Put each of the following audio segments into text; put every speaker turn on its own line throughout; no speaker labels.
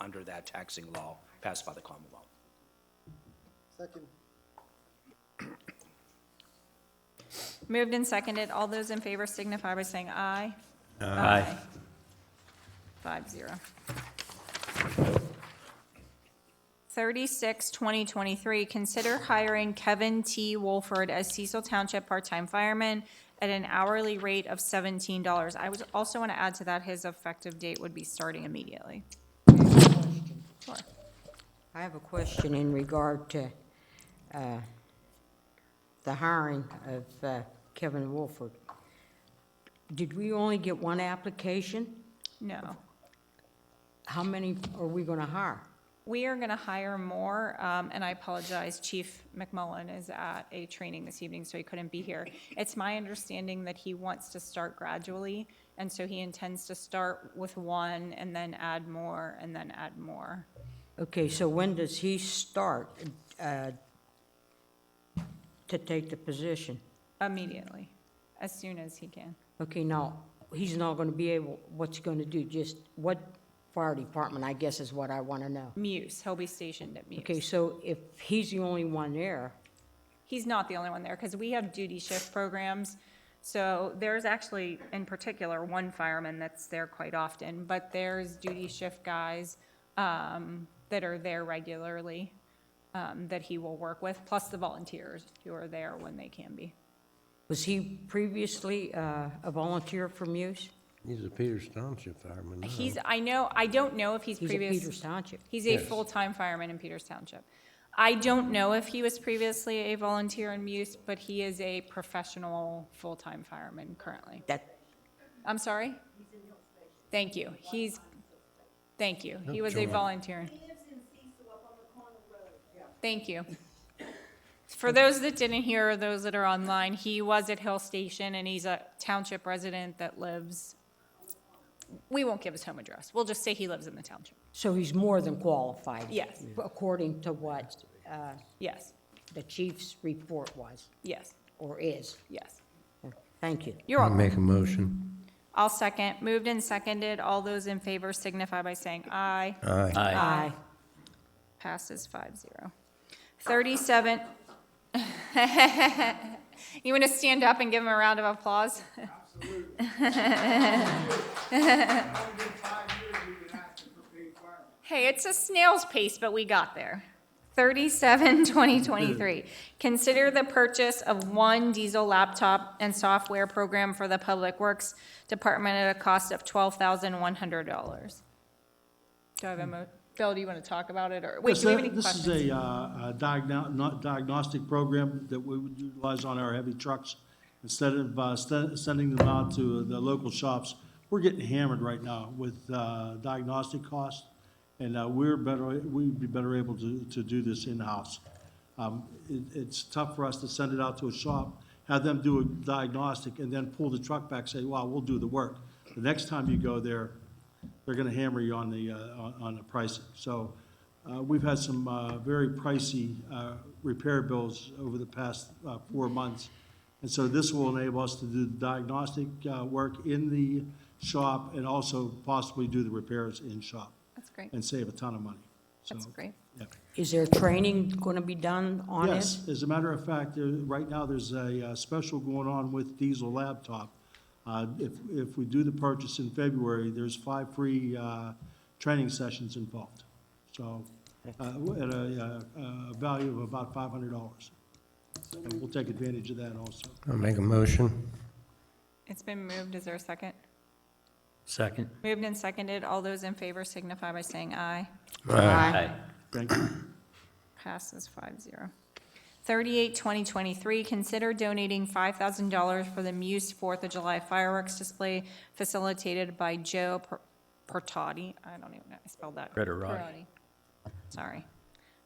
under that taxing law passed by the Commonwealth.
Second.
Moved and seconded. All those in favor signify by saying aye.
Aye.
Five zero. Thirty-six, twenty twenty-three, consider hiring Kevin T. Wolford as Cecil Township part-time fireman at an hourly rate of seventeen dollars. I would also want to add to that, his effective date would be starting immediately. Sure.
I have a question in regard to uh, the hiring of uh, Kevin Wolford. Did we only get one application?
No.
How many are we going to hire?
We are going to hire more, um, and I apologize, Chief McMullen is at a training this evening, so he couldn't be here. It's my understanding that he wants to start gradually, and so he intends to start with one and then add more and then add more.
Okay, so when does he start uh, to take the position?
Immediately, as soon as he can.
Okay, now, he's not going to be able, what's he going to do? Just what fire department, I guess, is what I want to know.
Muse, he'll be stationed at
Okay,
Muse.
so if he's the only one there,
He's not the only one there, because we have duty shift programs. So there's actually, in particular, one fireman that's there quite often, but there's duty shift guys um, that are there regularly um, that he will work with, plus the volunteers who are there when they can be.
Was he previously uh, a volunteer from Muse?
He's a Peters Township fireman now.
He's, I know, I don't know if he's
Mm-hmm. He's at
previous.
Peters Township.
He's a
Yes.
full-time fireman in Peters Township. I don't know if he was previously a volunteer in Muse, but he is a professional, full-time fireman currently.
That,
I'm sorry? Thank you. He's, thank you. He
No,
was a
you're right.
volunteer. Thank you. For those that didn't hear, or those that are online, he was at Hill Station and he's a township resident that lives, we won't give his home address. We'll just say he lives in the township.
so he's more than qualified?
Yes.
According to what uh,
Yes,
the chief's report was,
yes,
or is.
yes.
Thank you.
You're welcome.
Make a motion.
I'll second. Moved and seconded. All those in favor signify by saying aye.
Aye.
Aye.
Aye.
Passes five zero. Thirty-seven. You want to stand up and give him a round of applause? Hey, it's a snail's pace, but we got there. 37, 2023. Consider the purchase of one diesel laptop and software program for the Public Works Department at a cost of $12,100. Do I have a mo, Bill, do you want to talk about it, or, wait,
Yes,
do we have
that-
any questions?
This is a, uh, a diagno- not- diagnostic program that we would utilize on our heavy trucks. Instead of, uh, st- sending them out to uh, the local shops, we're getting hammered right now with, uh, diagnostic costs. And, uh, we're better, we'd be better able to, to do this in-house. Um, it, it's tough for us to send it out to a shop, have them do a diagnostic, and then pull the truck back, say, wow, we'll do the work. The next time you go there, they're gonna hammer you on the, uh, on, on the pricing. So, uh, we've had some, uh, very pricey, uh, repair bills over the past, uh, four months. And so this will enable us to do the diagnostic, uh, work in the shop and also possibly do the repairs in shop
That's great,
and save a ton of money. So,
that's great.
yeah.
Is there training going to be done on it?
Yes, as a matter of fact, there, right now, there's a, uh special going on with Diesel Laptop. Uh, if, if we do the purchase in February, there's five free, uh, training sessions involved. So, uh, at a, uh, uh value of about five hundred dollars. And we'll take advantage of that also.
I'll make a motion.
It's been moved, is there a second?
Second.
Moved and seconded, all those in favor signify by saying aye.
Aye.
Thank you.
Passes five zero. Thirty-eight, twenty twenty-three, consider donating five thousand dollars for the Muse Fourth of July fireworks display facilitated by Joe Per- Pertotti. I don't even know, I spelled that.
Pertotti.
Perotti. Sorry.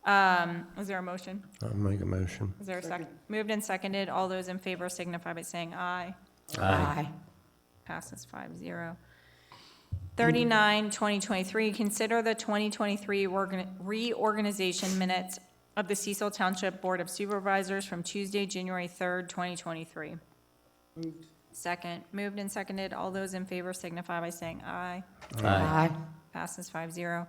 Um, is there a motion?
I'll make a motion.
Is there a second? Moved and seconded. All those in favor signify by saying aye.
Aye.
Passes five zero. Thirty-nine, twenty twenty-three, consider the twenty twenty-three reorganization minutes of the Cecil Township Board of Supervisors from Tuesday, January third, twenty twenty-three. Second, moved and seconded. All those in favor signify by saying aye.
Aye.
Passes five zero.